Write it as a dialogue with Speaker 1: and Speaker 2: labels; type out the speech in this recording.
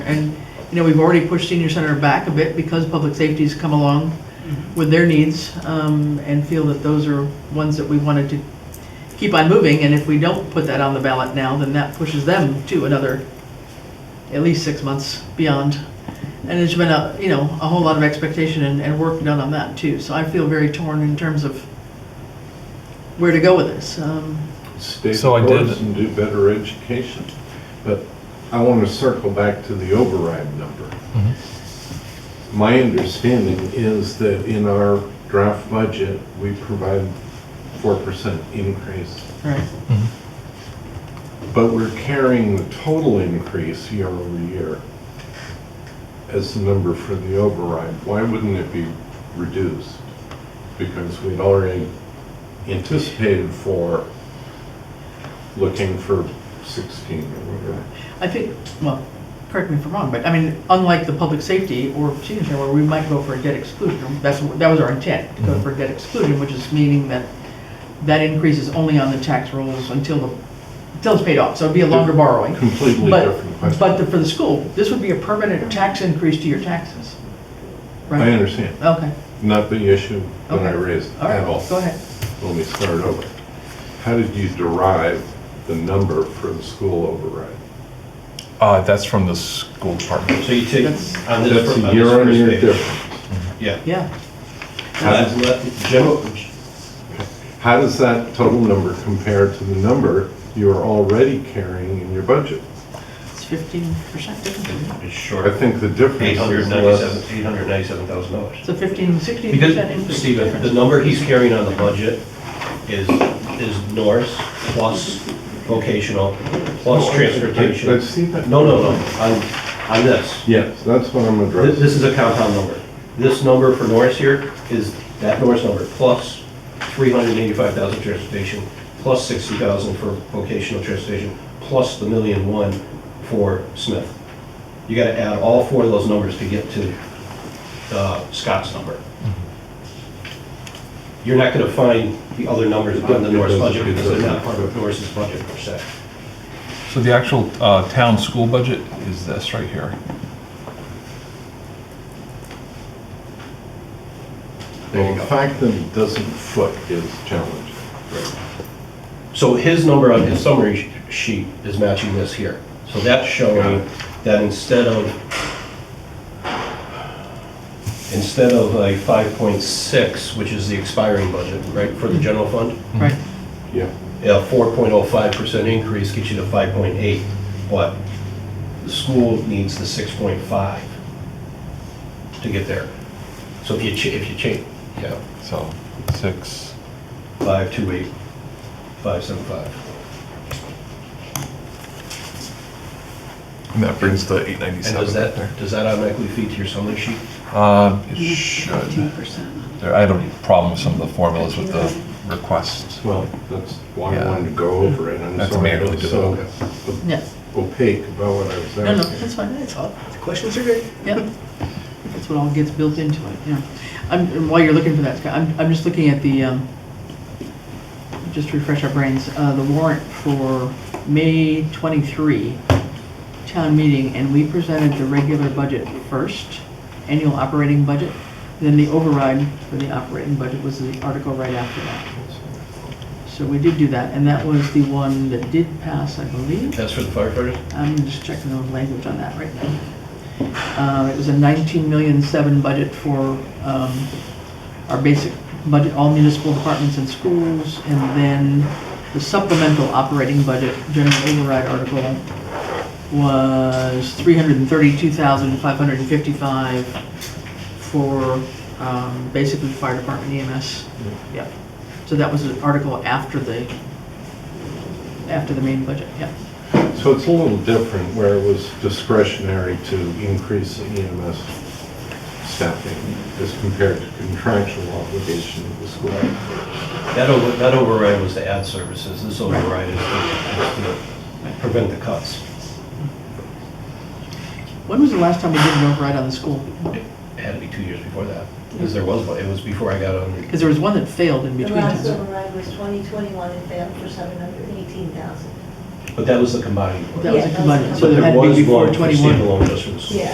Speaker 1: And, you know, we've already pushed senior center back a bit because public safety's come along with their needs um, and feel that those are ones that we wanted to keep on moving. And if we don't put that on the ballot now, then that pushes them to another, at least six months beyond. And there's been a, you know, a whole lot of expectation and, and work done on that too. So I feel very torn in terms of where to go with this. Um,
Speaker 2: stay the
Speaker 3: So I did-
Speaker 2: course and do better education. But I want to circle back to the override number.
Speaker 3: Mhm. Mm-hmm.
Speaker 2: My understanding is that in our draft budget, we provide 4% increase,
Speaker 1: Right.
Speaker 2: but we're carrying the total increase year over year as the number for the override. Why wouldn't it be reduced? Because we'd already anticipated for looking for 16 or whatever.
Speaker 1: I think, well, correct me if I'm wrong, but I mean, unlike the public safety or senior center where we might go for a debt exclusion, that's, that was our intent, to go for a debt exclusion, which is meaning that that increase is only on the tax rolls until the, until it's paid off, so it'd be a longer borrowing.
Speaker 2: Completely different
Speaker 1: But,
Speaker 2: question.
Speaker 1: but the- for the school, this would be a permanent tax increase to your taxes,
Speaker 2: I
Speaker 1: right?
Speaker 2: understand,
Speaker 1: Okay,
Speaker 2: not the issue that I
Speaker 1: Okay.
Speaker 2: raised
Speaker 1: all
Speaker 2: at all.
Speaker 1: right, go ahead.
Speaker 2: Let me start over. How did you derive the number for the school override?
Speaker 3: Uh, that's from the school department.
Speaker 4: So you take,
Speaker 1: That's-
Speaker 4: on this,
Speaker 2: That's
Speaker 4: fir-
Speaker 2: a
Speaker 4: on this
Speaker 2: year-on-year
Speaker 4: first page.
Speaker 2: difference.
Speaker 4: Yeah.
Speaker 1: Yeah,
Speaker 2: How
Speaker 4: Uh,
Speaker 2: does-
Speaker 4: let- General,
Speaker 2: How does that total number compare to the number you are already carrying in your budget?
Speaker 1: it's fifteen percent difference, isn't it?
Speaker 4: it's
Speaker 2: I
Speaker 4: short,
Speaker 2: think the difference
Speaker 4: eight hundred
Speaker 2: is
Speaker 4: ninety-seven,
Speaker 2: less.
Speaker 4: eight hundred ninety-seven thousand dollars.
Speaker 1: it's a fifteen, sixteen percent
Speaker 4: Because,
Speaker 1: increase.
Speaker 4: Stephen, the
Speaker 1: difference.
Speaker 4: number he's carrying on the budget is, is Norris plus vocational, plus transportation.
Speaker 2: I- I've seen that.
Speaker 4: No, no, no, on, on this.
Speaker 2: Yes, that's what I'm
Speaker 4: This,
Speaker 2: addressing.
Speaker 4: this is a compound number. This number for Norris here is that Norris number, plus 385,000 transportation, plus 60,000 for vocational transportation, plus the million one for Smith. You gotta add all four of those numbers to get to uh, Scott's number. You're not gonna find the other numbers on the Norris budget because they're not part of Norris's budget per se.
Speaker 3: So the actual uh, town school budget is this right here.
Speaker 4: There you
Speaker 2: Well, The
Speaker 4: go.
Speaker 2: fact that it doesn't foot is challenging.
Speaker 4: So his number on his summary sh- sheet is matching this here. So that's
Speaker 2: Got
Speaker 4: showing
Speaker 2: it.
Speaker 4: that instead of, instead of a 5.6, which is the expiring budget, right, for the
Speaker 2: Mm-hmm.
Speaker 4: general fund,
Speaker 1: Right,
Speaker 2: Yeah.
Speaker 4: a 4.05% increase gets you to 5.8, but the school needs the 6.5 to get there. So if you, cha- if you change, yeah,
Speaker 3: So six,
Speaker 4: 528, 575.
Speaker 3: and that brings the eight
Speaker 4: And
Speaker 3: ninety-seven.
Speaker 4: does that, does that automatically feed to your summary sheet?
Speaker 3: Uh, it
Speaker 5: Fifteen
Speaker 3: should.
Speaker 5: percent.
Speaker 3: There- I had a problem with some of the formulas with the requests.
Speaker 2: Well, that's why I
Speaker 3: Yeah.
Speaker 2: wanted to go over it. I'm
Speaker 3: That's
Speaker 2: sorry I
Speaker 3: manually
Speaker 2: was so
Speaker 3: developed.
Speaker 2: op-
Speaker 1: yeah,
Speaker 2: opaque about what I was
Speaker 1: no, no,
Speaker 2: asking.
Speaker 1: that's fine, that's all.
Speaker 5: The questions are good.
Speaker 1: Yep. That's what all gets built into it, yeah. I'm, and while you're looking for that, Scott, I'm, I'm just looking at the, um, just to refresh our brains, uh, the warrant for May twenty-three town meeting, and we presented the regular budget first, annual operating budget, then the override for the operating budget was the article right after that. So we did do that, and that was the one that did pass, I believe.
Speaker 4: That's for the firefighters?
Speaker 1: I'm just checking the language on that right now. Uh, It was a 19 million seven budget for um, our basic budget, all municipal departments and schools, and then the supplemental operating budget, general override article, was 332,555 for um, basically fire department E EMS. Yep. So that was an article after the, after the main budget, yep.
Speaker 2: So it's a little different where it was discretionary to increase the EMS staffing as compared to contractual obligation of the school.
Speaker 4: That over, that override was to add services, this override is to is to prevent the cuts.
Speaker 1: When was the last time we did an override on the school?
Speaker 4: It had to be two years before that, because there was, one. it was before I got on.
Speaker 1: Because there was one that failed in
Speaker 5: The
Speaker 1: between.
Speaker 5: last
Speaker 1: times.
Speaker 5: override was 2021 and failed for 718,000.
Speaker 4: But that was the combined one.
Speaker 1: That was a
Speaker 5: Yeah, that was a
Speaker 1: combined, so
Speaker 4: But
Speaker 1: there
Speaker 4: there
Speaker 1: had to be
Speaker 4: was
Speaker 1: before
Speaker 4: one for
Speaker 1: 21.
Speaker 4: standalone just for the school.
Speaker 5: Yeah.